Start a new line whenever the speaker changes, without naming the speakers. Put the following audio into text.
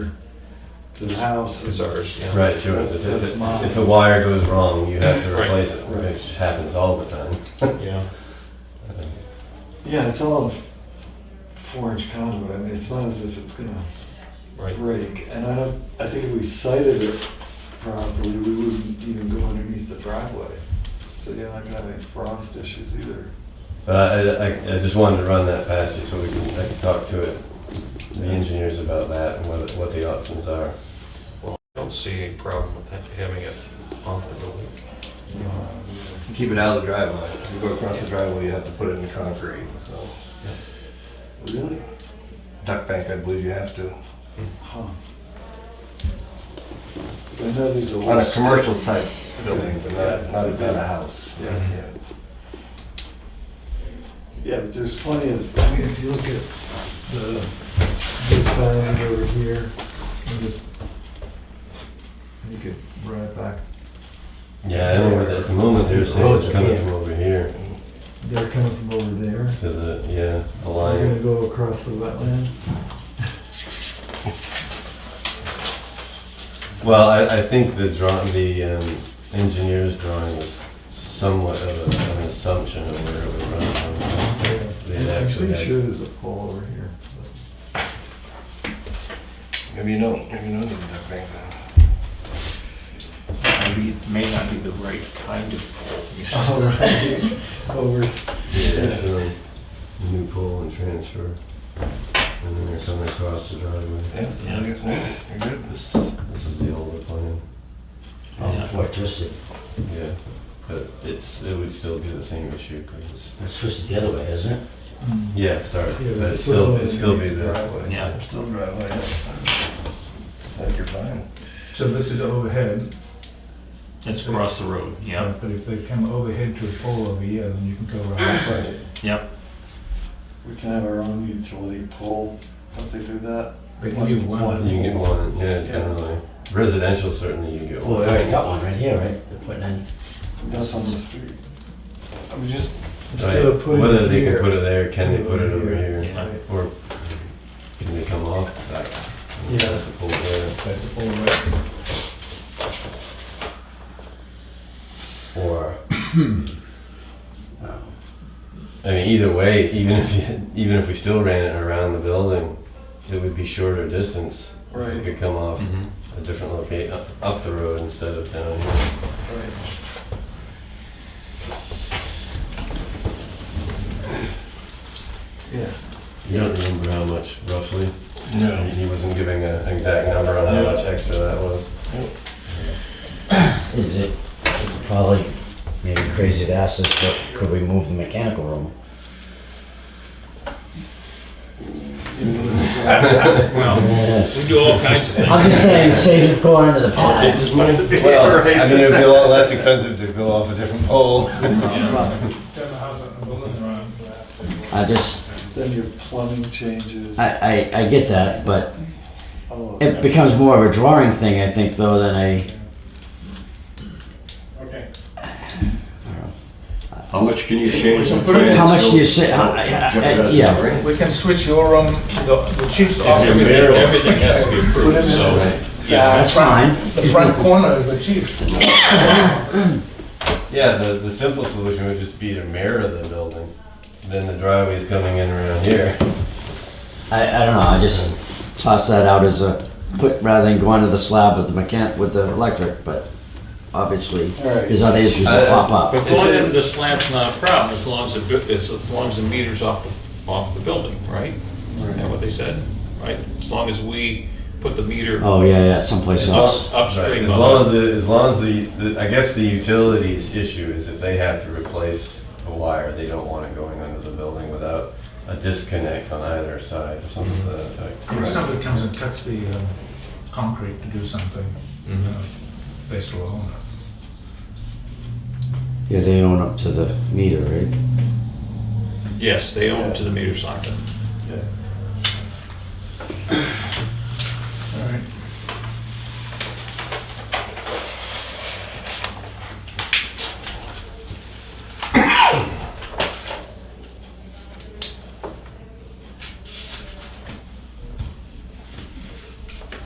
to the house.
It's ours, yeah.
Right, sure. If,
That's-
if,
that's mine.
if the wire goes wrong, you have to
Right.
replace it, which happens all the time.
Yeah,
Yeah, it's all four-inch conduit. I mean, it's not as if it's gonna
right.
break. And I don't, I think if we sighted it properly, we wouldn't even go underneath the driveway. So you're not gonna have any frost issues either.
But I, I, I just wanted to run that past you so we can, I can talk to it, the engineers about that and what, what the options are.
I don't see any problem with ha- having it off the building.
Keep it out of the driveway. If you go across the driveway, you have to put it in concrete, so.
Really?
Duck bank, I believe you have to.
Huh. 'Cause I know there's a.
On a
west-
commercial type building, but not, not about a house.
Yeah. Yeah, but there's plenty of, I mean, if you look at the, this bound over here, and this, you could run it back.
Yeah, I don't know, but at the moment, they're saying it's
Road's
coming
here.
from over here
They're coming from over there.
to the, yeah, the
They're gonna
line.
go across the wetlands.
Well, I, I think the draw, the um, engineer's drawing was somewhat of a- an assumption of where it would run from. They'd
I'm
actually
pretty
had-
sure there's a pole over here.
Maybe you don't, maybe you don't need a duck bank
Maybe it may not be the right kind of pole.
All Oh, right, over, s-
Yeah, sure. New pole and transfer. And then they're coming across the driveway.
Yeah.
you're good. This, this is the older plan,
Oh,
Yeah.
before it twisted.
yeah. But it's, it would still be the same issue, 'cause it's-
It's twisted the other way, isn't it?
yeah, sorry,
Yeah,
but
it's
it's still,
still
it'd still be
underneath the
the,
driveway.
Yeah.
still driveway. Like you're fine.
So this is overhead,
It's across the road, yeah,
but if they come overhead to a pole over here, then you can go around.
Right.
yep.
we can have our own utility pole, don't they do that?
But you get
One-
one,
You can get one, yeah, generally. Residential, certainly you get
Well, we
one.
already got one right here, right? They're putting in.
That's on the street. I mean, just, instead
Right.
of putting
Whether
it
they can
here.
put it there, can they put it over here?
Yeah.
Right.
Or can they come off that?
Yeah.
That's a pole there.
that's a pole right.
Or,
Um,
I mean, either way, even if, you- even if we still ran it around the building, it would be shorter distance. It
Right,
could come off
Mhm.
a different location, up the road instead of down here.
right. Yeah.
You don't remember how much roughly?
No.
He wasn't giving an exact number on how
No.
much extra that was.
Is it it's probably maybe crazy to ask this, but could we move the mechanical room?
Well,
Yeah.
we do all kinds of
I'm
things.
just saying, it saves Oh, it going into the pot.
his money to be well, I mean, it would be a lot less expensive to go off a different pole.
Yeah.
Turn the house on the building around.
I just,
Then your plumbing changes. Oh,
I, I, I get that, but
all of
it
that.
becomes more of a drawing thing, I think, though, than a,
Okay.
How much can you change the
Put it
plans?
how much do you
Don't-
say, how-
don't
I-
jump
I- I-
out of the
yeah.
ring.
We can switch your, um, the, the chief's
Everything
office, uh,
everything has to be
Put it
approved,
in
so,
there.
yeah.
That's fine.
The front corner is the chief.
Yeah, the, the simple solution would just be to mirror the building. Then the driveway's coming in around here.
I, I don't know, I just toss that out as a, put, rather than going to the slab with the mechan, with the electric, but obviously,
All right.
there's other issues that
Uh,
pop up.
But going into the slab's not a problem as long as the, bu- as as long as the meter's off the, off the building, right? Isn't that what they said, right? As long as we put the meter
Oh, yeah, yeah, someplace else.
up-
Right,
upstream
As long
of it.
as, the- as long as the, the- I guess the utilities issue is if they have to replace a wire, they don't want it going under the building without a disconnect on either side or something to that effect.
If somebody comes and cuts the um, concrete to do something, you
Mm-hmm.
Mhm.
know, they still own it.
Yeah, they own up to the meter, right?
Yes, they own to the meter socket.
Yeah.